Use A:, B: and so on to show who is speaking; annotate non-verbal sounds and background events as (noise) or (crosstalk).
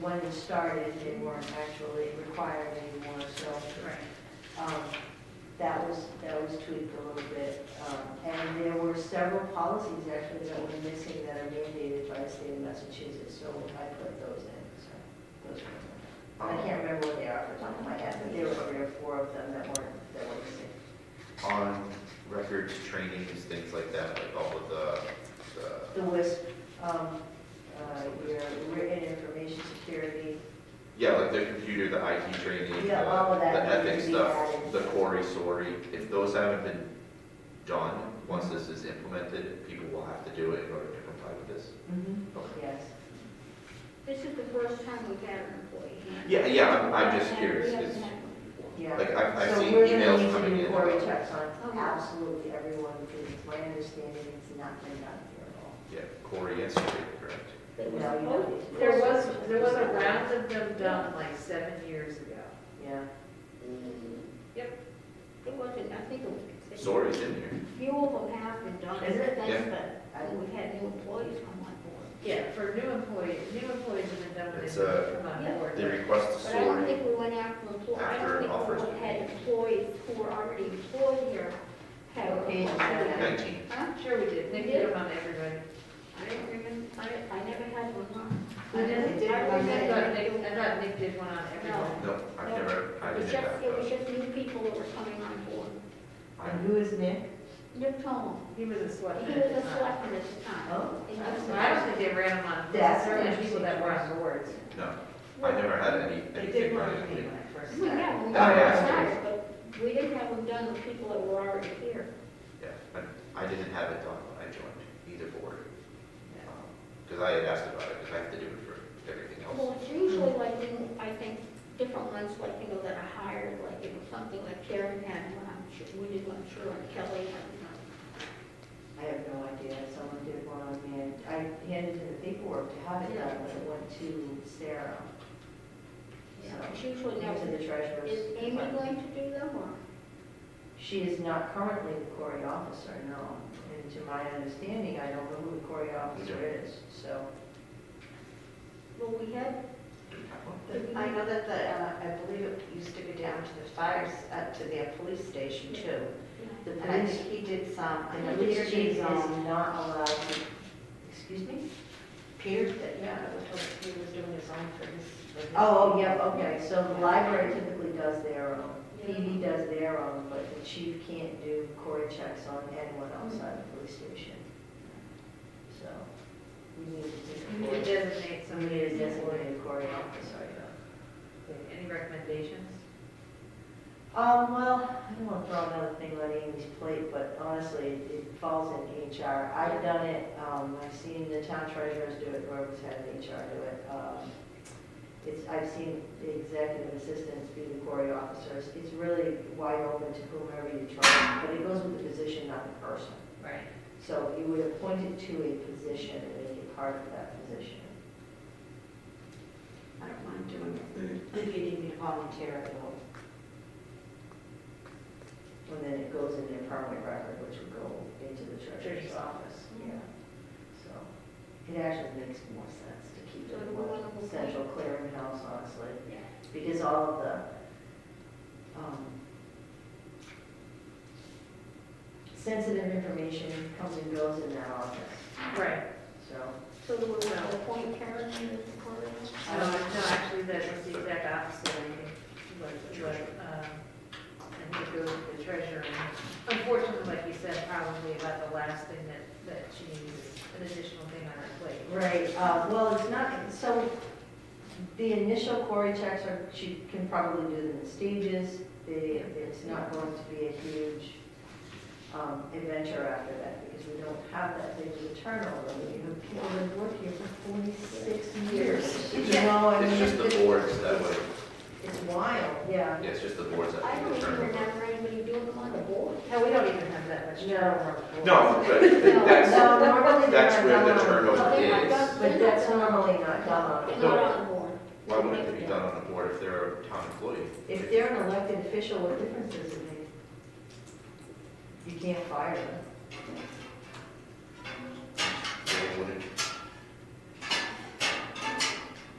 A: when it started, they weren't actually required anymore, so
B: Correct.
A: um, that was, that was tweaked a little bit. Um, And there were several policies actually that were missing that are mandated by the state of Massachusetts, so I put those in, so those were. I can't remember what they are off the top of my head, but there were three or four of them that weren't, that were missing.
C: on records, trainings, things like that, like all of the, the,
A: The WISP, um, uh, your written information security,
C: yeah, like the computer, the IT training,
A: Yeah, all
C: the
A: of that
C: the
A: needs to
C: ethics
A: be
C: stuff,
A: added.
C: the Corey, sorry, if those haven't been done, once this is implemented, people will have to do it in order to comply with this. Okay.
A: yes.
B: This is the first time we've had an employee.
C: Yeah, yeah, I'm, I'm just curious,
B: We haven't
C: it's-
B: had one before.
A: Yeah.
C: like, I've, I've
A: So
C: seen
A: we're gonna need to
C: emails coming
A: do
C: in
A: query
C: about,
A: checks
B: Oh,
A: on
B: yeah.
A: absolutely everyone, because it's my understanding it's not been done here at all.
C: yeah, Corey and Sorry, correct?
D: There was,
A: No, you don't.
D: there was, there was a round of them done like seven years ago.
A: Yeah,
B: It wasn't, I think it was.
C: Sorry's in here.
B: Few of them have been done.
A: Is it?
B: That's-
A: I
B: But we had new employees come on board.
D: Yeah, for new employees, new employees have been done when they
C: It's,
D: first
C: uh,
D: come
B: yeah.
D: on board.
C: They request a
B: But I don't
C: Sorry,
B: think we went after employees. I
C: After
B: don't think
C: offers
B: we
C: were
B: had
C: made.
B: employees who were already employed here. have-
A: Okay, is that-
C: nineteen,
B: Huh?
D: I'm sure we did, they did them on everybody.
B: I didn't remember, I, I never had one on.
D: I know they did,
B: I
D: I thought
B: remember.
D: Nick, I thought Nick did one on everyone.
C: no, I've never, I
B: It was
C: didn't
B: just,
C: have
B: it was
C: those.
B: just new people that were coming on board.
A: And
C: I'm,
A: who is Nick?
B: Nick Tone,
D: He was a
B: he
D: selectman
B: was
D: at the
B: a
D: time.
B: selectman at the time.
A: Oh.
B: And he was
D: So I don't
B: a-
D: think they ran them on,
A: That's
D: certainly
A: interesting.
D: people that were on boards.
C: no, I never had any,
D: They did
C: anything
D: one
C: running.
D: on me when I
E: (laughs)
D: first
B: We
D: started.
B: got, we
C: That I
B: got
C: asked
B: started, but we didn't have them done with people that were already here.
C: Yeah, I, I didn't have it done when I joined either board, because I had asked about it, because I have to do it for everything else.
B: Well, it's usually like, in- I think, different ones, like, you know, that are hired, like, you know, something like Karen had one, I'm sure, we did one, sure, and Kelly had one.
A: I have no idea, someone did one on me, and I handed in the paperwork to have it done, but it went to Sarah.
B: So It's
A: To
B: usually never,
A: the treasurer's.
B: is Amy
A: department.
B: going to do them, or?
A: She is not currently the Cory officer, no. And to my understanding, I don't know who the Cory officer is, so.
B: Well, we had,
C: Do we have one?
B: did we
E: I know that the, uh, I believe it used to go down to the fires, uh, to the police station too.
A: The
E: And I
A: police,
E: think he did some, I
A: the
E: know Peter
A: police chief
E: did
A: is
E: some.
A: not allowed to, excuse me?
E: Peter, did- yeah, I was told he was doing his own for his. for his-
A: Oh, oh, yeah, okay, so the library typically does their own, PD does their own, but the chief can't do core checks on anyone outside the police station. So, we need
D: You
A: to do,
D: need to
A: somebody
D: designate somebody
A: is
D: as employee.
A: designated core officer, yeah.
D: Any recommendations?
A: Um, well, I don't want to throw another thing on Amy's plate, but honestly, it it falls in HR. I've done it, um, I've seen the town treasurers do it, whoever's had an HR do it. Um, It's, I've seen the executive assistants be the query officers. It's really wide open to whomever you try, but it goes with the position, not the person.
D: Right.
A: So you would appoint it to a position and make it part of that position.
E: I don't mind doing it. If you need me to volunteer, I will.
A: And then it goes in their permanent record, which would go into the treasurer's
D: Treasurer's
A: office.
B: office.
A: Yeah. So it actually makes more sense to keep it
B: So do we
A: one
B: wanna move
A: central clearinghouse, honestly,
B: Yeah.
A: because all of the, um, sensitive information comes and goes in that office,
D: Right.
A: so.
B: So do we want to appoint Karen to the court?
D: No, Um, no, actually, that was the exact opposite, I think, what, what, um, and to go with the treasurer. And Unfortunately, like you said, probably about the last thing that, that she needs is an additional thing on her plate.
A: Right, uh, well, it's not, so the initial query checks are, she can probably do them in stages. They, it's not going to be a huge, um, adventure after that because we don't have that big of a turnover. We have people that have worked here for forty-six years. You know, I
C: It's
A: mean,
C: just the boards that way,
A: It's wild, yeah.
C: yeah, it's just the boards that.
B: I don't
C: make the
B: even
C: turnover.
B: remember anybody doing them on the board.
D: Hell, we don't even have that much
A: No.
D: turnover.
C: No, but that's,
A: No, normally they're
C: that's where the
A: not done on-
C: turnover
B: Well, they're not
C: is.
B: done.
A: But that's normally not done on a
B: They're
A: board.
B: not on the board.
C: Why wouldn't it be done on the board if they're a town employee?
A: If they're an elected official, what difference does it make? You can't fire them.
C: They wouldn't